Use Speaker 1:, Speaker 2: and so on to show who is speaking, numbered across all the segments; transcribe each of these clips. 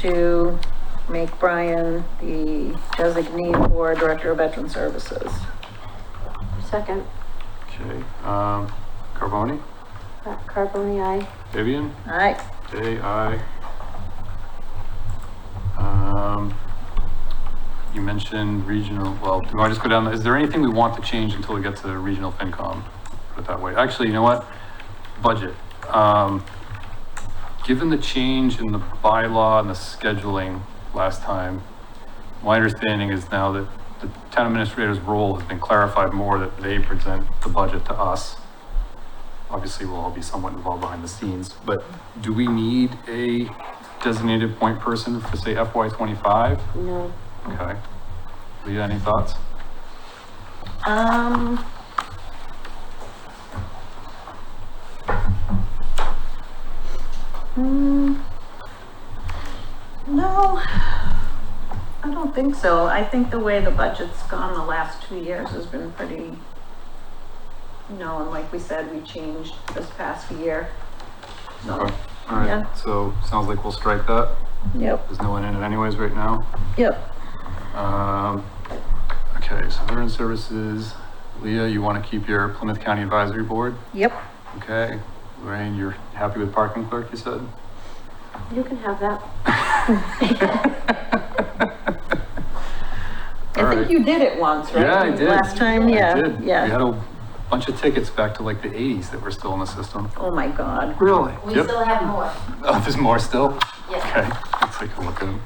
Speaker 1: to make Brian the designee for Director of Veteran Services.
Speaker 2: Second,
Speaker 3: Okay, um, Carboni,
Speaker 2: Matt Carboni, aye.
Speaker 3: Vivian,
Speaker 1: Aye.
Speaker 3: Day, aye. Um, you mentioned regional, well, do I just go down, is there anything we want to change until we get to regional FinCom? Put it that way. Actually, you know what? Budget. Um, given the change in the bylaw and the scheduling last time, my understanding is now that the town administrator's role has been clarified more that they present the budget to us. Obviously, we'll all be somewhat involved behind the scenes, but do we need a designated point person for say FY twenty-five?
Speaker 2: No.
Speaker 3: Okay. Leah, any thoughts?
Speaker 1: Um. Hmm. No, I don't think so. I think the way the budget's gone the last two years has been pretty, you know, and like we said, we changed this past year. So,
Speaker 3: Okay. All right,
Speaker 1: Yeah.
Speaker 3: so sounds like we'll strike that.
Speaker 1: yep,
Speaker 3: There's no one in it anyways right now.
Speaker 1: yep.
Speaker 3: Um, okay, so veteran services, Leah, you want to keep your Plymouth County Advisory Board?
Speaker 1: Yep.
Speaker 3: Okay. Lorraine, you're happy with parking clerk, you said?
Speaker 2: You can have that.
Speaker 3: All
Speaker 1: I think
Speaker 3: right.
Speaker 1: you did it once, right?
Speaker 3: Yeah, I did.
Speaker 1: Last time,
Speaker 3: I
Speaker 1: yeah,
Speaker 3: did. We had
Speaker 1: yeah.
Speaker 3: a bunch of tickets back to like the eighties that were still in the system.
Speaker 1: Oh my God.
Speaker 3: Really?
Speaker 4: We
Speaker 3: Yep.
Speaker 4: still have more.
Speaker 3: Oh, there's more still?
Speaker 4: Yes.
Speaker 3: Okay, let's take a look at it.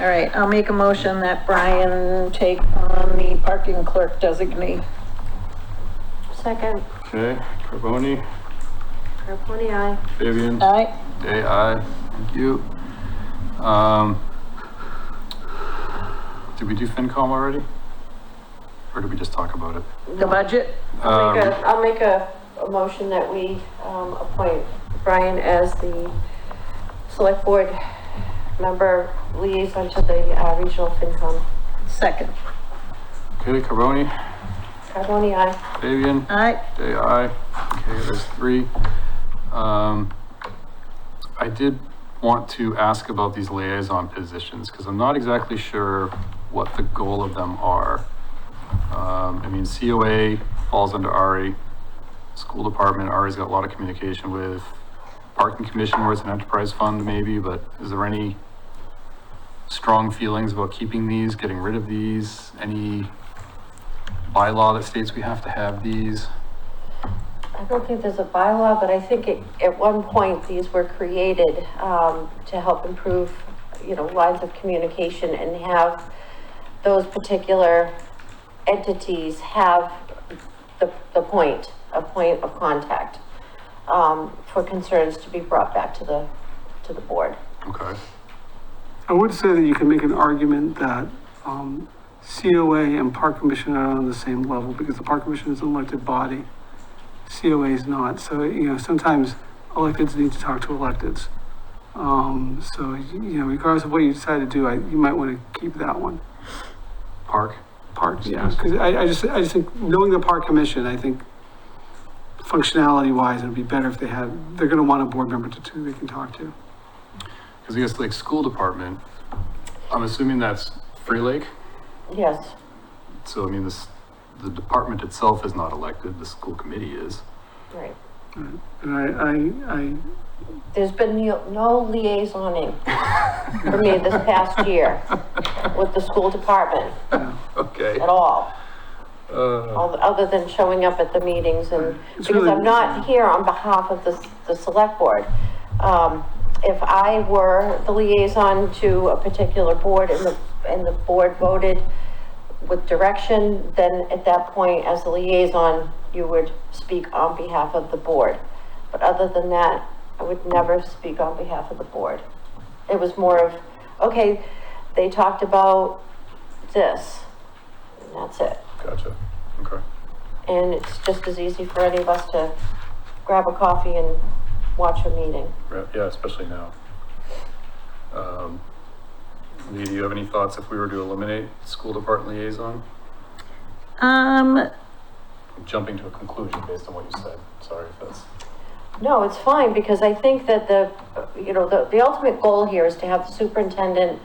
Speaker 1: All right, I'll make a motion that Brian take on the parking clerk designee.
Speaker 2: Second,
Speaker 3: Okay, Carboni,
Speaker 2: Carboni, aye.
Speaker 3: Fabian,
Speaker 1: All right,
Speaker 3: Day, aye. Thank you. Um, did we do FinCom already? Or did we just talk about it?
Speaker 1: the budget?
Speaker 2: I'll make a,
Speaker 3: Um,
Speaker 2: I'll make a, a motion that we, um, appoint Brian as the select board member liaison to the, uh, regional FinCom.
Speaker 1: Second.
Speaker 3: Okay, Carboni,
Speaker 2: Carboni, aye.
Speaker 3: Fabian,
Speaker 1: All right,
Speaker 3: Day, aye. Okay, there's three. Um, I did want to ask about these liaison positions, because I'm not exactly sure what the goal of them are. Um, I mean, COA falls under RE, school department, RE's got a lot of communication with, parking commission where it's an enterprise fund maybe, but is there any strong feelings about keeping these, getting rid of these, any bylaw that states we have to have these?
Speaker 2: I don't think there's a bylaw, but I think it, at one point, these were created, um, to help improve, you know, lines of communication and have those particular entities have the, the point, a point of contact, um, for concerns to be brought back to the, to the board.
Speaker 3: Okay,
Speaker 5: I would say that you can make an argument that um, COA and Park Commission are on the same level because the Park Commission is an elected body. COA is not. So, you know, sometimes electeds need to talk to electeds. Um, So, y- you know, regardless of what you decide to do, I- you might want to keep that one.
Speaker 3: park?
Speaker 5: Parks, yeah.
Speaker 3: Yes.
Speaker 5: Because I I just, I just think, knowing the Park Commission, I think functionality-wise, it'd be better if they had, they're going to want a board member to, to they can talk to.
Speaker 3: Because I guess like school department, I'm assuming that's Free Lake.
Speaker 2: Yes,
Speaker 3: So I mean, this, the department itself is not elected, the school committee is.
Speaker 2: right.
Speaker 5: And I, I, I
Speaker 2: There's been no no liaisoning for me this past year with the school department
Speaker 3: Okay.
Speaker 2: at all.
Speaker 3: Uh,
Speaker 2: all- other than showing up at the meetings and,
Speaker 5: It's
Speaker 2: because
Speaker 5: really-
Speaker 2: I'm not here on behalf of the, the select board. Um, if I were the liaison to a particular board and the, and the board voted with direction, then at that point, as the liaison, you would speak on behalf of the board. But other than that, I would never speak on behalf of the board. It was more of, okay, they talked about this, and that's it.
Speaker 3: gotcha. Okay.
Speaker 2: And it's just as easy for any of us to grab a coffee and watch a meeting.
Speaker 3: Right, Yeah, especially now. Um, Lee, do you have any thoughts if we were to eliminate school department liaison?
Speaker 1: Um,
Speaker 3: I'm Jumping to a conclusion based on what you said. Sorry if that's.
Speaker 2: No, it's fine, because I think that the, you know, the, the ultimate goal here is to have the superintendent